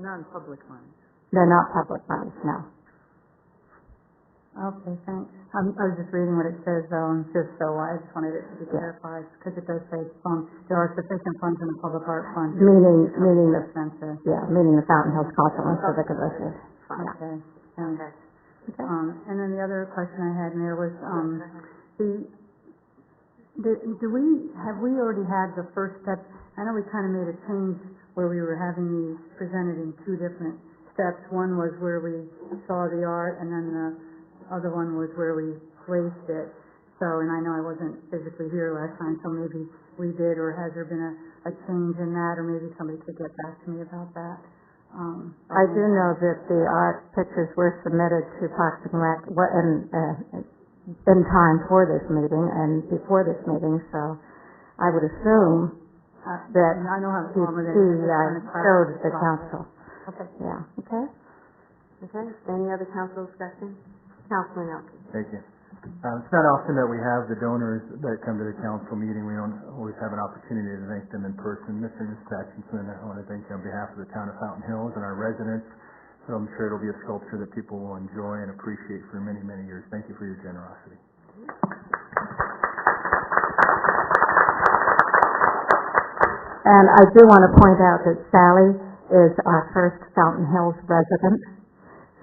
non-public ones. They're not public funds, no. Okay, thanks. Um, I was just reading what it says, um, just so I just wanted it to be clarified, because it does say, um, there are sufficient funds in the public art fund. Meaning, meaning the, Expenses. yeah, meaning the Fountain Hills Cultural and Civic Association. Okay. And, Okay. Okay. um, and then the other question I had, Mayor, was, um, The, the, do we, have we already had the first step? I know we kind of made a change where we were having these presented in two different steps. One was where we saw the art, and then the other one was where we placed it. So, and I know I wasn't physically here last time, so maybe we did, or has there been a, a change in that? Or maybe somebody could get back to me about that. Um, I do know that the art pictures were submitted to Parks and Rec, wa- in, uh, in time for this meeting and before this meeting, so I would assume uh, that I know how he, long it is. he, Just uh, trying to showed clarify the process. council, Okay, yeah, okay? okay. Any other council discussion? Councilman Elkins? Thank you. Um, It's not often that we have the donors that come to the council meeting. We don't always have an opportunity to thank them in person. Mr. and Mrs. Atkinson, I want to thank you on behalf of the town of Fountain Hills and our residents. So I'm sure it'll be a sculpture that people will enjoy and appreciate for many, many years. Thank you for your generosity. And I do want to point out that Sally is our first Fountain Hills resident,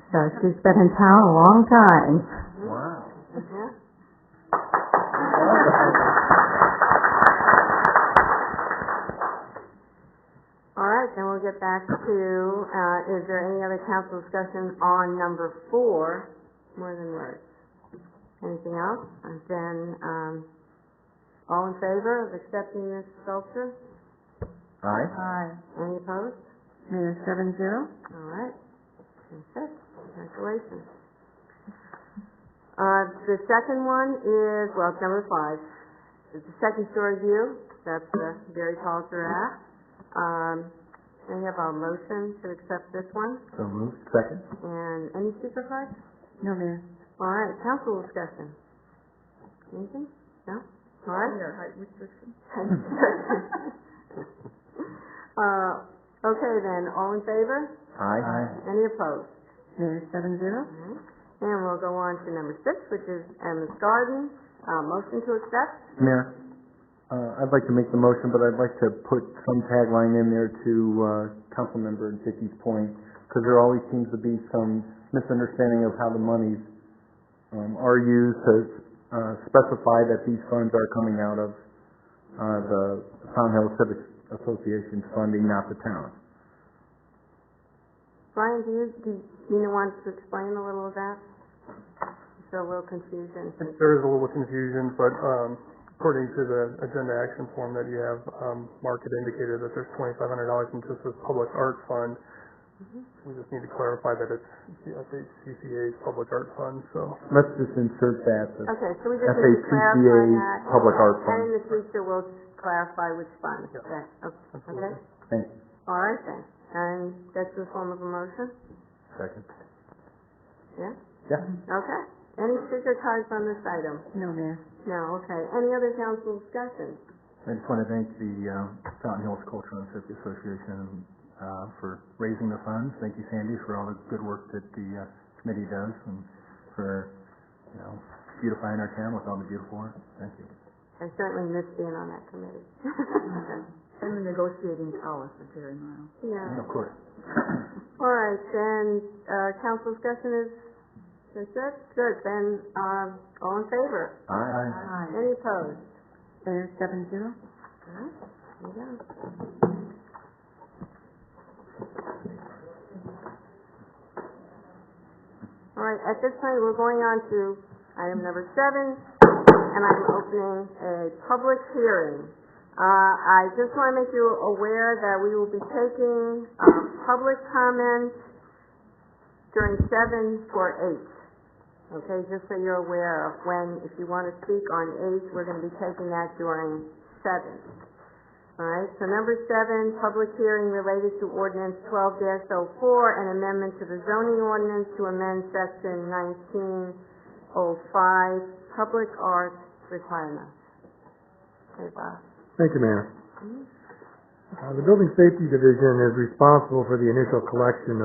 so she's been in town a long time. Wow. Mhm. All right, then we'll get back to, uh, is there any other council discussion on number four, more than words? Anything else? And then, um, all in favor of accepting this sculpture? All right. Aye. Any opposed? Mayor, seven zero? All right. That's it. Congratulations. Uh, the second one is, well, it's number five. It's the second story view. That's the very tall giraffe. Um, and we have a motion to accept this one. So moved. Second. And any supervisor? No, Mayor. All right, council discussion. Anything? No? All right. Uh, okay then, all in favor? Aye. Any opposed? Mayor, seven zero? Mm-hmm. And we'll go on to number six, which is Emma's Garden, uh, motion to accept. Mayor, uh, I'd like to make the motion, but I'd like to put some tagline in there to uh, Councilmember Dickey's point, because there always seems to be some misunderstanding of how the monies um, are used to uh, specify that these funds are coming out of uh, the Fountain Hill Civic Association's funding, not the town. Brian, do you, do you want to explain a little of that? So a little confusion. There is a little confusion, but um, according to the agenda action form that you have, um, Mark had indicated that there's twenty-five hundred dollars in just this public art fund. We just need to clarify that it's FHCCA's public art fund, so. Let's just insert that. that- Okay, so we just need to clarify FACCA that. Public Art And in Fund. the future, we'll clarify which fund. Okay, okay, Thank you. all right then. And that's the form of a motion? Second. Yeah? Yeah. Okay. Any sticker cards on this item? No, Mayor. No, okay. Any other council discussion? I just want to thank the um, Fountain Hills Cultural and Civic Association uh, for raising the funds. Thank you, Sandy, for all the good work that the uh, committee does and for, you know, beautifying our town with all the beautiful art. Thank you. I certainly missed being on that committee. And the negotiating power for Jerry Morrow. Yeah. Of course. All right, then, uh, council discussion is, that's it, good, then, um, all in favor? Aye. Aye. Any opposed? Mayor, seven zero? All right, there you go. All right, at this point, we're going on to item number seven, and I'm opening a public hearing. Uh, I just want to make you aware that we will be taking, um, public comments during seven for eight. Okay, just so you're aware of when, if you want to speak on eight, we're going to be taking that during seven. All right, so number seven, public hearing related to ordinance twelve 4 an amendment to the zoning ordinance to amend section nineteen oh five, public art requirements. Okay, Bob. Hmm? Thank you, Mayor. Uh, The Building Safety Division is responsible for the initial collection